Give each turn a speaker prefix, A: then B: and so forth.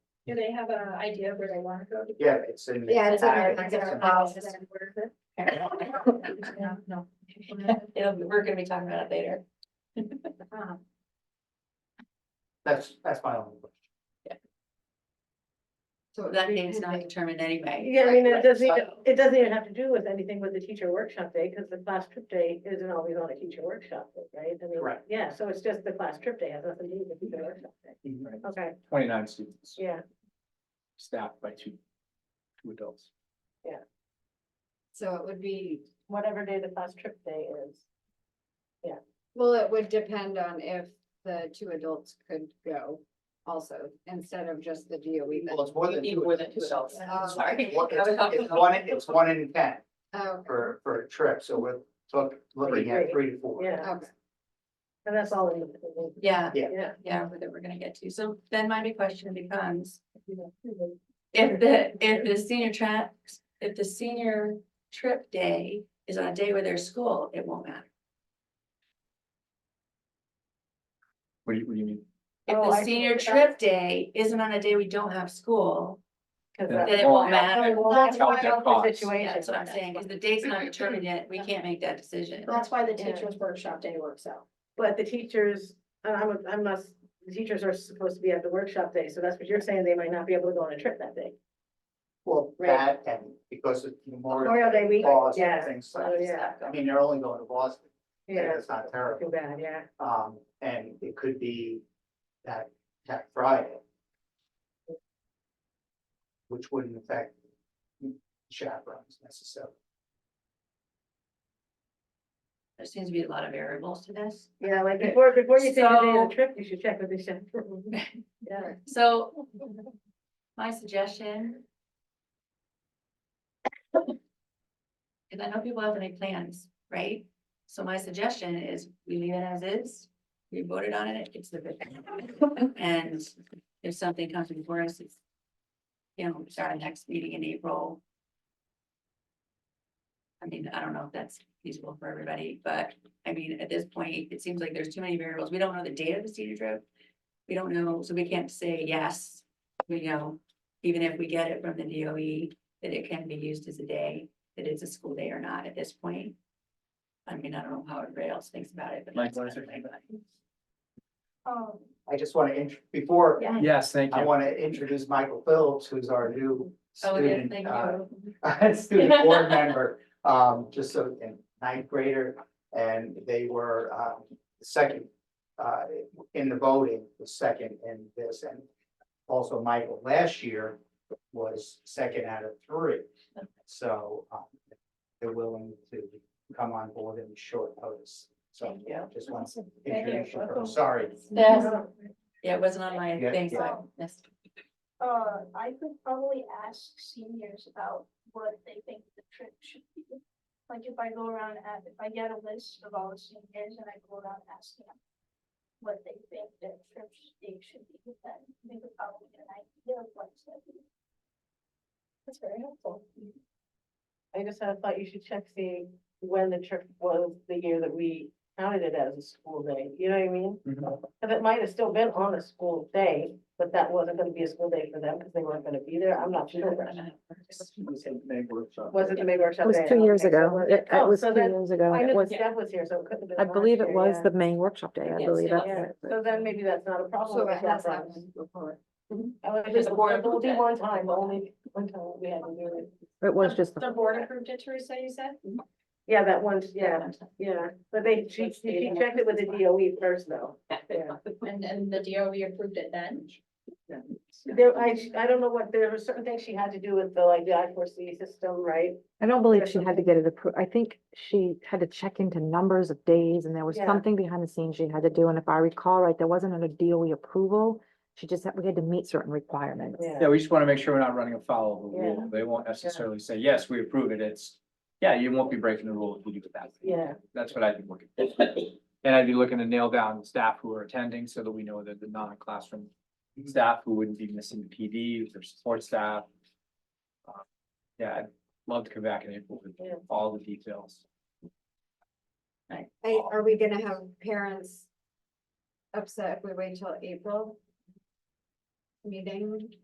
A: Do they have an idea of where they wanna go?
B: Yeah, it's in. the-
C: Yeah, it's in
A: Uh,
C: there. It's
A: is
C: in
A: it
C: our
A: policy.
C: policy.
A: No, no.
C: It'll be- we're gonna be talking about it later.
A: Um,
B: That's, that's my only question.
C: So that date's not determined anyway.
D: Yeah, I mean, it doesn't,
C: Right,
D: even- it doesn't even have to do with anything with the teacher workshop day, because the class trip day isn't always on a teacher workshop, day, right? I mean,
B: Correct.
D: Yeah, so it's just the class trip day, has nothing to do with the teacher workshop day. Okay,
E: Twenty-nine students,
D: yeah,
E: staffed by two, two adults.
F: So it would be,
D: whatever day the class trip day is.
F: well, it would depend on if the two adults could go also, instead of just the DOE.
B: Well, it's more than.
C: Even more than two adults.
F: Um,
C: Sorry.
B: It's one- It's it's one, in- it's one in ten
F: Oh,
B: for, for a trip, so we're look, looking at three to four.
D: Yeah.
F: okay.
D: And that's all. it is.
C: Yeah,
D: Yeah.
C: yeah, that we're gonna get to. So then my big question becomes, if the, if the senior trap, if the senior trip day is on a day where there's school, it won't matter.
E: What do you, what do you mean?
C: If
D: Oh, I
C: the
D: see.
C: senior trip day isn't on a day we don't have school,
D: Cause
E: Yeah.
D: that-
C: then it won't matter.
D: Well, that's
E: Count
D: why
E: their
D: that's the
E: costs.
D: situation.
C: That's what I'm saying, because the date's not determined yet. We can't make that decision.
A: That's why the teachers workshop day works out.
D: But the teachers, and I'm, I'm not, the teachers are supposed to be at the workshop day, so that's what you're saying, they might not be able to go on a trip that day.
B: Well,
D: Right.
B: that and because of Memorial
D: Memorial Day week,
B: Boston,
D: yeah,
B: things
D: Oh,
B: like
D: yeah.
B: that. I mean, they're only going to Boston,
D: yeah,
B: it's not terrible.
D: too bad, yeah.
B: Um, and it could be that, that Friday. Which wouldn't affect chaperones necessarily.
C: There seems to be a lot of variables to this.
D: Yeah, like before, before you take the day
C: So-
D: of the trip, you should check with the chaperone. Yeah.
C: So my suggestion. Cause I know people have to make plans, right? So my suggestion is we leave it as is. We voted on it, it's the bid. And if something comes before us, it's. You know, start our next meeting in April. I mean, I don't know if that's feasible for everybody, but I mean, at this point, it seems like there's too many variables. We don't know the date of the senior trip. We don't know, so we can't say yes, we know, even if we get it from the DOE, that it can be used as a day, that it's a school day or not at this point. I mean, I don't know how everybody else thinks about it, but. that's
E: Likewise.
C: another thing, but-
A: Um,
B: I just want to, before,
A: Yeah.
E: Yes, thank
B: I
E: you.
B: want to introduce Michael Phillips, who's our new
C: Oh, yes,
B: student,
C: thank
B: uh,
C: you.
B: student board member, um, just so, and ninth grader. And they were, um, second, uh, in the voting, the second in this, and also Michael last year was second out of three. So, um, they're willing to come on board in short notice, so
C: Thank you.
B: just want to
A: Thank you.
B: introduce you, first. sorry.
C: Yes, yeah, it wasn't on my
B: Yeah.
C: thing, so I missed.
A: Uh, I could probably ask seniors about what they think the trip should be. Like if I go around and if I get a list of all the seniors and I go around asking them what they think their trip should be, should be, then they could probably get an idea of what's going to be. That's very helpful.
D: I just had a thought, you should check see when the trip was the year that we counted it as a school day, you know what I mean?
E: Mhm.
D: Cause it might have still been on a school day, but that wasn't gonna be a school day for them, cause they weren't gonna be there, I'm not sure. Was it the May workshop?
G: It was
D: day?
G: two years
D: Okay, so
G: ago.
D: was
G: It it
D: Oh,
G: was
D: so
G: two
D: then-
G: years ago.
D: I
G: It
D: knew
G: was,
D: Steph was here, so it could have been.
G: I
D: last
G: believe it
D: year,
G: was
D: yeah.
G: the May workshop day, I
C: Yes,
G: believe
C: it
G: it.
C: was.
D: Yeah, so then maybe that's not a problem.
F: So it
D: if that's
F: has
D: not-
F: happened before.
D: I would
C: Because
D: just,
C: the board
D: it will be
C: approved it.
D: one time, only one time we had to do it.
G: It was just,
A: The board approved it, Teresa, Um, you said?
D: Yeah, that one, yeah, yeah, but they, she, she checked it with the DOE first though. Yeah.
A: And, and the DOE approved it then?
D: There, I, I don't know what, there were certain things she had to do with the, like, the I four C system, right?
G: I don't believe she had to get it approved. I think she had to check into numbers of days and there was
D: Yeah.
G: something behind the scenes she had to do. And if I recall right, there wasn't a DOE approval. She just had, we had to meet certain requirements.
D: Yeah.
E: Yeah, we just want to make sure we're not running afoul of the
D: Yeah.
E: rule. They won't necessarily say, yes, we approve it. It's, yeah, you won't be breaking the rule if you do it that. way."
D: Yeah,
E: That's what I'd be looking. for. And I'd be looking to nail down the staff who are attending so that we know that the non-classroom staff who wouldn't be missing the PD, their support staff. Uh, Yeah, I'd love to come back in April with
D: Yeah.
E: all the details.
F: I- Are we gonna have parents upset if we wait till April? Meeting?